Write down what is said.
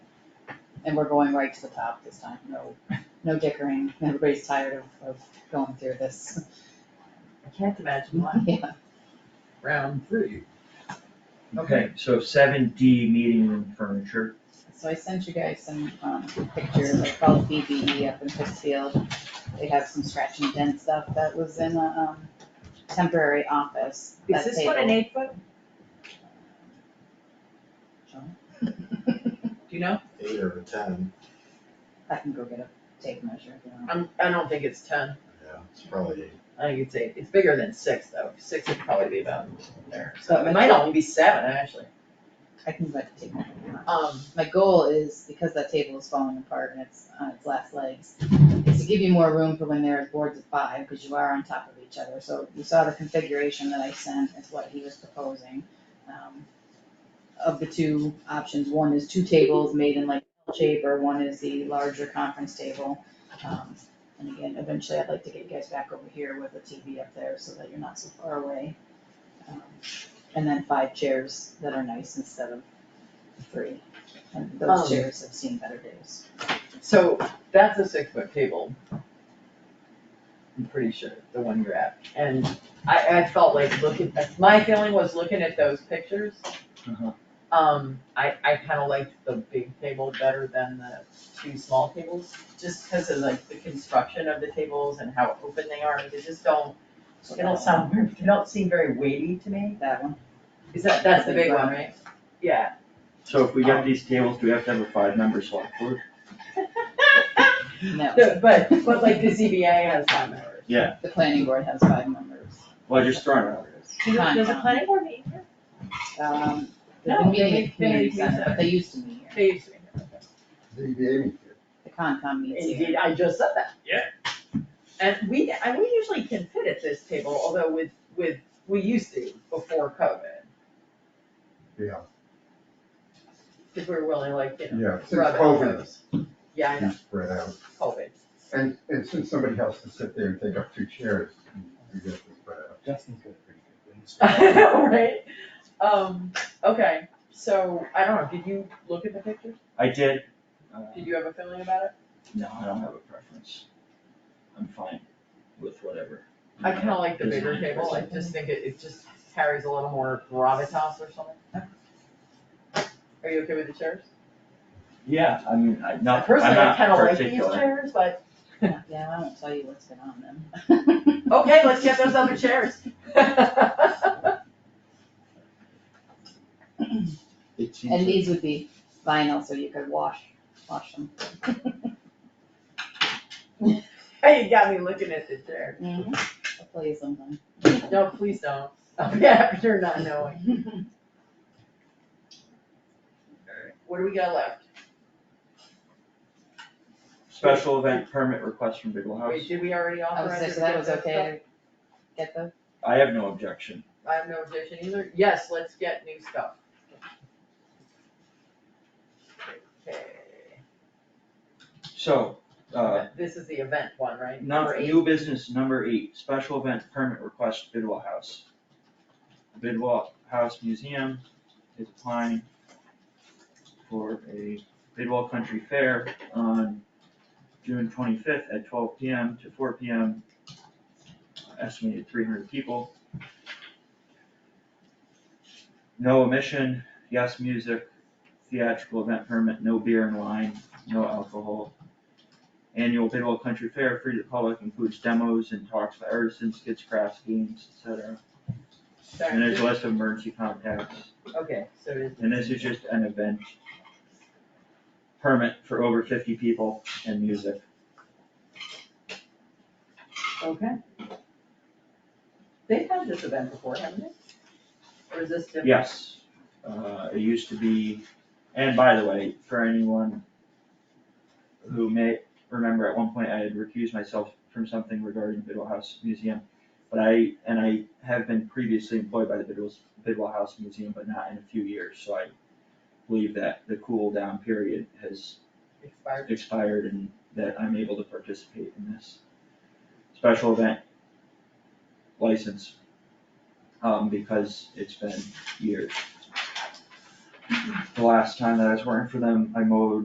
and we're going right to the top this time, no, no dickering, everybody's tired of, of going through this, I can't imagine why, yeah. round three. Okay, so seven D, meeting room furniture. So I sent you guys some, um, pictures, I called BBE E up in Pittsfield, they have some scratch and dent stuff that was in a, um, temporary office, Is that this one an table. eight foot? Do you know? eight or a ten, I can go get a tape measure if you want. I'm, I don't think it's ten, yeah, it's probably eight. I think it's eight, it's bigger than six though, six would probably be about there, So so it it might- might only be seven actually. I can let the tape measure if you want. Um, My goal is, because that table is falling apart and it's on its last legs, is to give you more room for when there's boards of five, because you are on top of each other, so you saw the configuration that I sent is what he was proposing. Um, Of the two options, one is two tables made in like L shape, or one is the larger conference table. Um, And again, eventually I'd like to get you guys back over here with a TV up there so that you're not so far away. Um, And then five chairs that are nice instead of three. And Um. those chairs have seen better days. so that's a six foot table. I'm pretty sure, the one you're at, and I, I felt like looking, uh, my feeling was looking at those pictures. Uh-huh. Um, I, I kinda liked the big table better than the two small tables, just because of like the construction of the tables and how open they are, they just don't, they don't sound, very- they don't seem very weighty to me. That one, Is that, that's the big one, right? Yeah. So if we Um, get these tables, do we have to have a five-member select board? no, The- But, but like the ZBA has that number. the planning board has five members. Well, I just throwing it out there. Does it- does the planning board meet here? Um, they've No, been meeting they- at the community they- center, but they used to meet here. They used to meet here. ZBA, The Concom meets here. Indeed, I just said that. Yeah. And we, and we usually can fit at this table, although with, with, we used to before COVID, yeah, because we were willing, like, you know, yeah, since throw out COVID, those. Yeah, I know, it's spread out. COVID. And, and since somebody has to sit there and take up two chairs, you get this spread out. Justin's got pretty good wings. I know, right? Um, okay, so, I don't know, did you look at the pictures? I did, uh, Did you have a feeling about it? no, I don't have a preference. I'm fine with whatever. I kinda like the bigger Design. table, I just think it, it just carries a little more gravitas or something. Are you okay with the chairs? Yeah, I mean, I, not, I'm Personally, I not kinda like these particular. chairs, but Yeah, I won't tell you what's been on them. Okay, let's get those other chairs. It's And these would be vinyl, so you could wash, wash them. Hey, you got me looking at the chair. I'll tell you something. No, please don't. Yeah, you're not knowing. What do we got left? Special event permit request from Bigel Wait, House. did we already I was gonna authorize? her say, to so that get was those stuff? okay to get those? I have no objection. I have no objection either. Yes, let's get new stuff. Okay. So, uh, This is the event one, right? Number, Number eight. new business number eight, special event permit request Bidwell House. Bidwell House Museum is applying for a Bidwell Country Fair on June twenty-fifth at twelve PM to four PM. Estimated three hundred people. No emission, yes music, theatrical event permit, no beer and wine, no alcohol annual Bidwell Country Fair, free to the public, includes demos and talks by artisans, kids crafts, games, etc. Sorry. And there's a list of emergency contacts, Okay, so it is. and this is just an event permit for over fifty people and music. Okay. They've had this event before, haven't they? Or is this different? Yes, uh, it used to be, and by the way, for anyone who may remember, at one point I had recused myself from something regarding Bidwell House Museum. But I, and I have been previously employed by the Bidwell's, Bidwell House Museum, but not in a few years, so I believe that the cool down period has Expired. expired and that I'm able to participate in this special event license, um, because it's been years. The last time that I was working for them, I mowed